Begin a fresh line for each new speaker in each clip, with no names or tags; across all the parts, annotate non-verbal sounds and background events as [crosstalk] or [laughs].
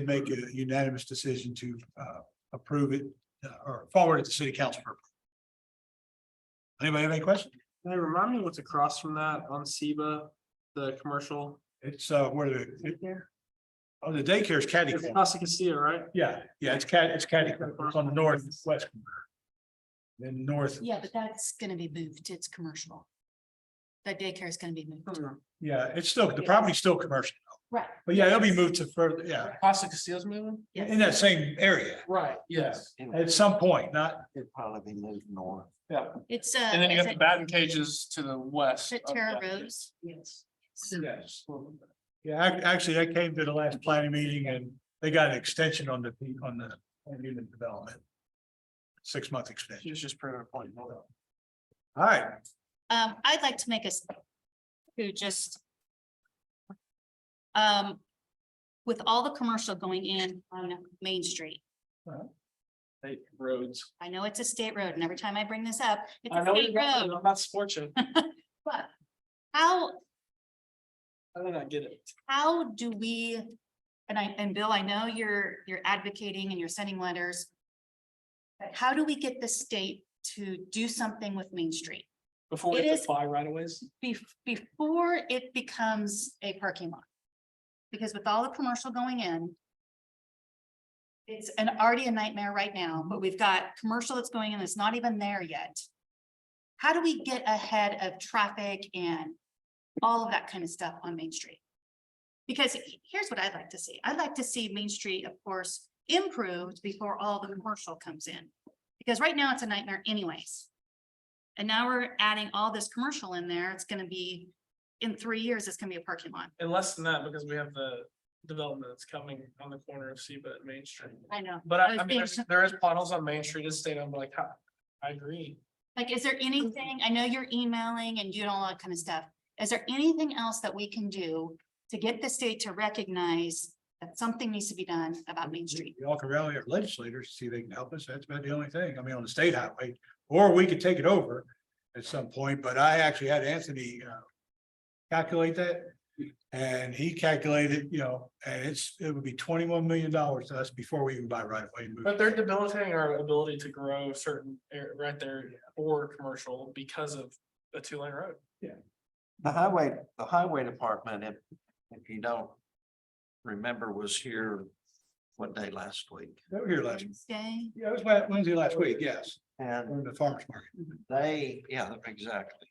did make a unanimous decision to uh, approve it uh, or forward it to city council. for approval. Anybody have any questions?
Can you remind me what's across from that on Seba, the commercial?
It's uh, where the, oh, the daycare's caddy
It's
corner.
Casa Casilla, right?
Yeah, yeah, it's cat, it's caddy corner. It's on the northwest. corner. Then north,
Yeah, but that's gonna be moved. It's commercial. That daycare is gonna be
Hmm.
moved.
yeah, it's still, the property's still commercial,
Right.
but yeah, it'll be moved to further, yeah,
Casa Casilla's moving?
in that same area
Right, yes.
at some point, not,
It'd probably be moved north.
It's uh.
And then you
is
have the
it-
batting cages to the west.
is it
of
Terra
that.
Rose? Yes.
yes. Yeah, ac- actually, that came to the last planning meeting and they got an extension on the, P- on the on unit development. Six month extension.
It's just pretty point.
All right,
Um, I'd like to make us to just um, with all the commercial going in on Main Street,
Hey, roads.
I know it's a state road and every time I bring this up, it's
I
a
know
state
you're not-
road,
I'm not
[laughs]
scorching. I
but how
did not get it.
how do we, and I, and Bill, I know you're, you're advocating and you're sending letters. But how do we get the state to do something with Main Street
Before
It
we have
is-
to fly right aways.
bef- before it becomes a parking lot? Because with all the commercial going in. It's an already a nightmare right now, but we've got commercial that's going in that's not even there yet. How do we get ahead of traffic and all of that kind of stuff on Main Street? Because he- here's what I'd like to see. I'd like to see Main Street, of course, improved before all the commercial comes in. Because right now it's a nightmare anyways. And now we're adding all this commercial in there. It's gonna be, in three years, it's gonna be a parking lot.
And less than that, because we have the development that's coming on the corner of Seba and Main Street.
I know.
But
I
I, I mean,
think-
there's, there is potholes on Main Street, it's state owned, but like, I, I agree.
Like, is there anything, I know you're emailing and doing all that kind of stuff. Is there anything else that we can do to get the state to recognize that something needs to be done about Main Street?
Y'all can rally our legislators, see if they can help us. That's about the only thing. I mean, on the state highway, or we could take it over at some point, but I actually had Anthony uh, calculate that. And he calculated, you know, and it's, it would be twenty-one million dollars to us before we even buy right away. and move.
But they're debilitating our ability to grow certain air right there or commercial because of a two lane road.
The highway, the highway department, if, if you don't remember, was here what day last week?
They were here last,
Wednesday?
yeah, it was Wed- Wednesday last week, yes,
And
in the farmer's market.
they, yeah, exactly.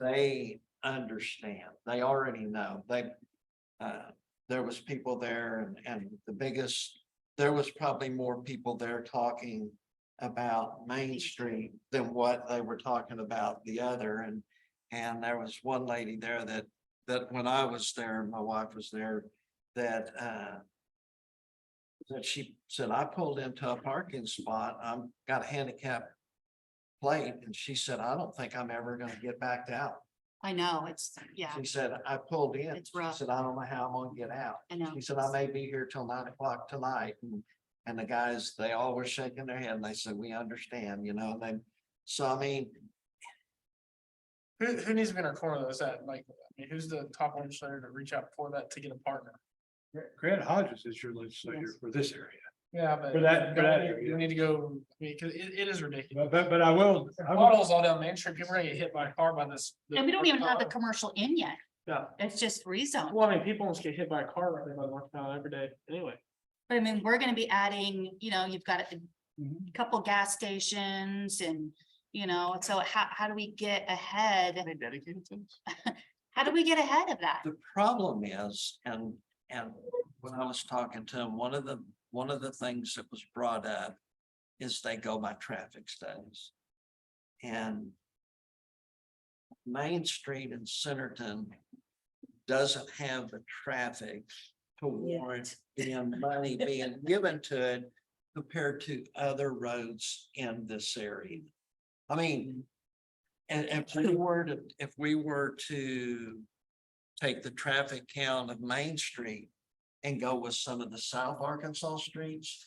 They understand, they already know, they, uh, there was people there and, and the biggest, there was probably more people there talking about Main Street than what they were talking about the other and, and there was one lady there that, that when I was there, and my wife was there, that, uh, that she said, I pulled into a parking spot, I'm got a handicap plate, and she said, I don't think I'm ever gonna get backed out.
I know, it's, yeah,
She said, I pulled in,
It's
she
rough.
said, I don't know how I'm gonna get out.
I know.
She said, I may be here till nine o'clock tonight, and, and the guys, they all were shaking their head, and they said, we understand, you know, and then, so I mean,
Who, who needs to be in our corner though? Is that like, I mean, who's the top legislator to reach out for that to get a partner?
Grant Hodges is your legislator
Yes.
for this area.
Yeah, but.
For that- for that area.
You need to go, I mean, cause it, it is ridiculous.
But, but, but I will, I will
Potholes all down Main Street, people are gonna get hit by a car by this.
And we don't even have the commercial in yet.
Yeah,
It's just rezoned.
well, I mean, people almost get hit by a car right there by North Carolina every day anyway.
But I mean, we're gonna be adding, you know, you've got a
Mhm.
couple gas stations and, you know, so how, how do we get ahead?
They dedicated to this.
How do we get ahead of that?
The problem is, and, and when I was talking to him, one of the, one of the things that was brought up is they go by traffic studies. And Main Street in Centerton doesn't have the traffic to warrant in money being given to it compared to other roads in this area. I mean, and and if we were to, if we were to take the traffic count of Main Street and go with some of the South Arkansas streets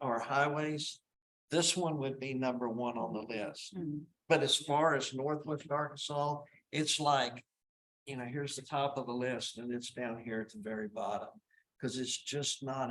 or highways, this one would be number one on the list.
Mm,
But as far as Northwest Arkansas, it's like, you know, here's the top of the list and it's down here at the very bottom. Cause it's just not